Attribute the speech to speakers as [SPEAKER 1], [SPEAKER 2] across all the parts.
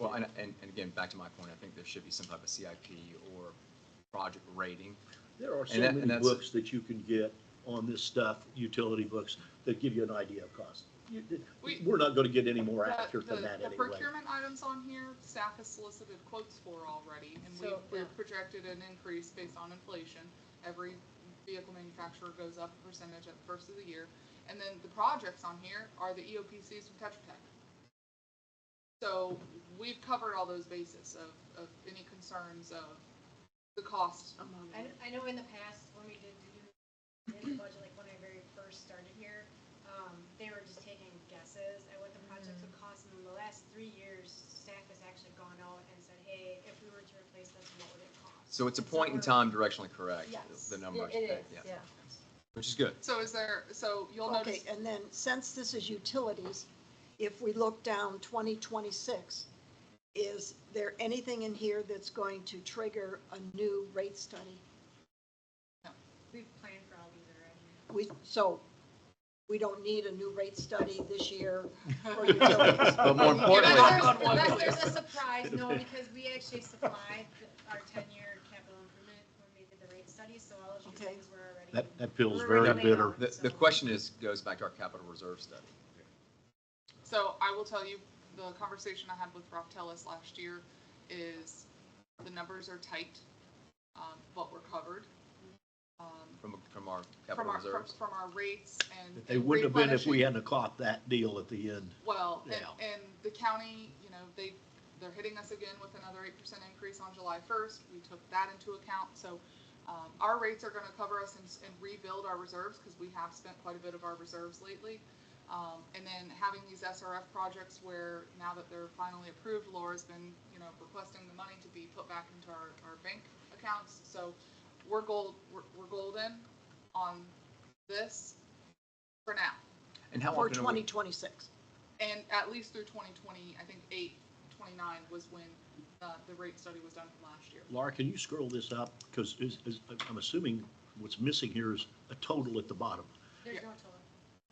[SPEAKER 1] Well, and, and, and again, back to my point, I think there should be some type of CIP or project rating.
[SPEAKER 2] There are so
[SPEAKER 1] And that-
[SPEAKER 2] many
[SPEAKER 1] and that's-
[SPEAKER 2] books that you can get on this stuff, utility books, that give you an idea of cost. You-
[SPEAKER 3] We-
[SPEAKER 2] We're not gonna get any more
[SPEAKER 3] The-
[SPEAKER 2] accurate
[SPEAKER 3] the-
[SPEAKER 2] than that
[SPEAKER 3] The
[SPEAKER 2] anyway.
[SPEAKER 3] procurement items on here, staff has solicited quotes for already, and we,
[SPEAKER 4] So, yeah.
[SPEAKER 3] we've projected an increase based on inflation. Every vehicle manufacturer goes up a percentage at the first of the year. And then the projects on here are the E EOPCs from Tetra Tech. So we've covered all those bases of, of any concerns of the cost.
[SPEAKER 4] I, kn- I know in the past, when we did the unit budget, like when I very first started here, um, they were just taking guesses at what the projects would cost, and in the last three years, staff has actually gone out and said, hey, if we were to replace this, what would it cost?
[SPEAKER 1] So it's a
[SPEAKER 4] So
[SPEAKER 1] point in
[SPEAKER 4] we're-
[SPEAKER 1] time directionally correct,
[SPEAKER 4] Yes.
[SPEAKER 1] the number. I
[SPEAKER 5] It
[SPEAKER 1] should
[SPEAKER 5] it
[SPEAKER 1] pick,
[SPEAKER 5] is,
[SPEAKER 1] yes.
[SPEAKER 5] yeah.
[SPEAKER 1] Which is good.
[SPEAKER 3] So is there, so you'll
[SPEAKER 6] Okay,
[SPEAKER 3] notice,
[SPEAKER 6] and then since this is utilities, if we look down twenty twenty-six, is there anything in here that's going to trigger a new rate study?
[SPEAKER 4] We've planned for all these already.
[SPEAKER 6] We, so we don't need a new rate study this year for utilities.
[SPEAKER 1] But more importantly,
[SPEAKER 4] Unless there's-
[SPEAKER 3] Importantly-
[SPEAKER 4] Unless there's a surprise, no, because we actually supplied our ten-year capital improvement when we did the rate study, so all of these
[SPEAKER 6] Okay.
[SPEAKER 4] things were already.
[SPEAKER 2] That, that feels
[SPEAKER 4] We're
[SPEAKER 2] very
[SPEAKER 4] already
[SPEAKER 2] bitter.
[SPEAKER 4] laid
[SPEAKER 1] the, the question is, goes back to our capital reserve study.
[SPEAKER 3] So I will tell you, the conversation I had with Rob Tellis last year is the numbers are tight, um, but we're covered. um,
[SPEAKER 1] From, from our
[SPEAKER 3] From
[SPEAKER 1] capital
[SPEAKER 3] our, from
[SPEAKER 1] reserves.
[SPEAKER 3] from our rates and.
[SPEAKER 2] They wouldn't have been if we
[SPEAKER 3] replenishing.
[SPEAKER 2] hadn't have caught that deal at the end.
[SPEAKER 3] Well, and,
[SPEAKER 2] Yeah.
[SPEAKER 3] and the county, you know, they, they're hitting us again with another eight percent increase on July first. We took that into account, so, um, our rates are gonna cover us and, s- and rebuild our reserves, cause we have spent quite a bit of our reserves lately. Um, and then having these SRF projects where now that they're finally approved, Laura's been, you know, requesting the money to be put back into our, our bank accounts, so we're gold, we're, we're golden on this for now.
[SPEAKER 1] And how
[SPEAKER 6] For
[SPEAKER 1] often are
[SPEAKER 6] twenty
[SPEAKER 1] we,
[SPEAKER 6] twenty-six.
[SPEAKER 3] And at least through 2020, I think 8, 29 was when uh, the rate study was done from last year.
[SPEAKER 2] Laura, can you scroll this up? Because is, is, I'm assuming what's missing here is a total at the bottom.
[SPEAKER 4] There's no total.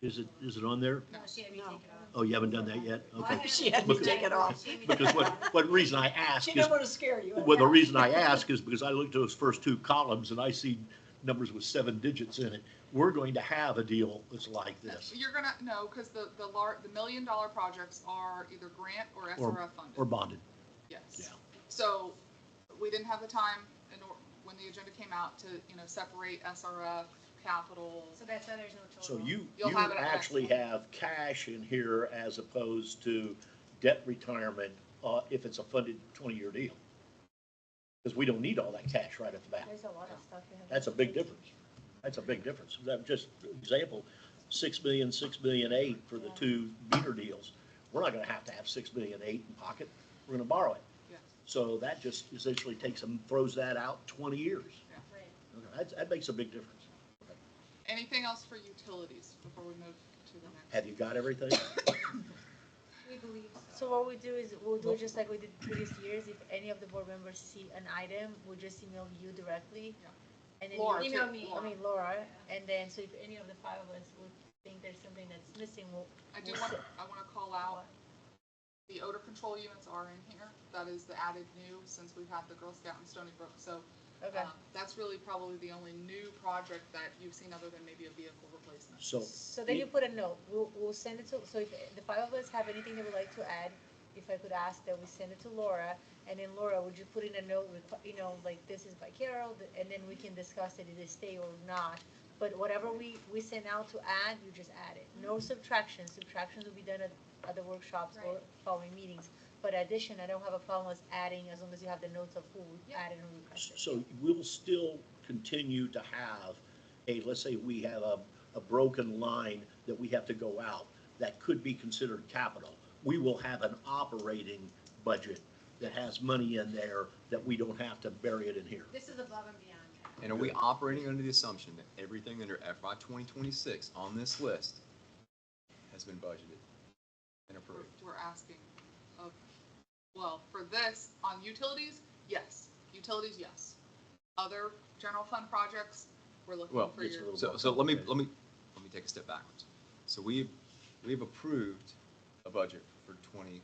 [SPEAKER 2] Is it, is it on there?
[SPEAKER 4] No, she had me
[SPEAKER 6] No.
[SPEAKER 4] take it off.
[SPEAKER 2] Oh, you haven't done that yet?
[SPEAKER 4] Well, I
[SPEAKER 2] Okay.
[SPEAKER 4] haven't-
[SPEAKER 6] She had me
[SPEAKER 2] Because-
[SPEAKER 6] take it off.
[SPEAKER 4] She had me take
[SPEAKER 2] Because
[SPEAKER 4] it
[SPEAKER 2] what,
[SPEAKER 4] off.
[SPEAKER 2] what reason I ask
[SPEAKER 6] She
[SPEAKER 2] is.
[SPEAKER 6] didn't want to scare you.
[SPEAKER 2] Well, the reason I ask is because I looked at those first two columns and I see numbers with seven digits in it. We're going to have a deal that's like this,
[SPEAKER 3] You're gonna, no, because the, the lar, the million dollar projects are either grant or SRF
[SPEAKER 2] or
[SPEAKER 3] funded,
[SPEAKER 2] bonded.
[SPEAKER 3] yes.
[SPEAKER 2] yeah.
[SPEAKER 3] So we didn't have the time in, or- when the agenda came out to, you know, separate SRF, capital.
[SPEAKER 4] So that's why there's no total.
[SPEAKER 2] So you,
[SPEAKER 3] Uh-huh. You'll
[SPEAKER 2] you
[SPEAKER 3] have it at next
[SPEAKER 2] actually
[SPEAKER 3] one.
[SPEAKER 2] have cash in here as opposed to debt retirement, uh, if it's a funded twenty-year deal. Because we don't need all that cash right at the back.
[SPEAKER 5] There's a lot of stuff you have.
[SPEAKER 2] That's a big difference. That's a big difference. That- Just example, six million, six million eight for the two meter deals. We're not gonna have to have six million eight in pocket. We're gonna borrow it.
[SPEAKER 3] Yes.
[SPEAKER 2] So that just essentially takes them, throws that out twenty years.
[SPEAKER 4] Right.
[SPEAKER 2] That, that makes a big difference.
[SPEAKER 3] Anything else for utilities before we move to the next?
[SPEAKER 2] Have you got everything?
[SPEAKER 4] We believe
[SPEAKER 5] So what we do is, we'll do it just like we did previous years, if any of the board members see an item, we'll just email you directly.
[SPEAKER 3] Yeah.
[SPEAKER 5] And then
[SPEAKER 3] Laura,
[SPEAKER 5] you,
[SPEAKER 4] email
[SPEAKER 3] too.
[SPEAKER 4] me.
[SPEAKER 5] I
[SPEAKER 3] Laura.
[SPEAKER 5] mean Laura, and then, so if any of the five of us would think there's something that's missing, we'll.
[SPEAKER 3] I do want, I want to call out, the odor control units are in here. That is the added new since we've had the Girl Scout in Stony Brook. So
[SPEAKER 5] Okay,
[SPEAKER 3] um, that's really probably the only new project that you've seen other than maybe a vehicle replacement.
[SPEAKER 2] So,
[SPEAKER 5] so then you put a note, we'll, we'll send it to, so if the five of us have anything that we'd like to add, if I could ask that we send it to Laura, and then Laura, would you put in a note, with, you know, like, this is by Carol, th- and then we can discuss it, did it stay or not? But whatever we, we send out to add, you just add it, no subtractions, subtractions will be done at, at the workshops or
[SPEAKER 4] Right.
[SPEAKER 5] following meetings. But addition, I don't have a problem with adding, as long as you have the notes of who we
[SPEAKER 4] Yeah.
[SPEAKER 5] added and who requested.
[SPEAKER 2] so we'll still continue to have a, let's say we have a, a broken line that we have to go out that could be considered capital. We will have an operating budget that has money in there that we don't have to bury it in here.
[SPEAKER 4] This is above and beyond.
[SPEAKER 1] and are we operating under the assumption that everything under FY 2026 on this list has been budgeted and
[SPEAKER 3] We're,
[SPEAKER 1] approved?
[SPEAKER 3] we're asking of, well, for this, on utilities, yes. Utilities, yes. Other general fund projects, we're looking
[SPEAKER 1] Well,
[SPEAKER 3] for
[SPEAKER 2] it's a
[SPEAKER 3] your,
[SPEAKER 2] little-
[SPEAKER 1] So, so let me, let me, let me take a step backwards. So we, we've approved a budget for twenty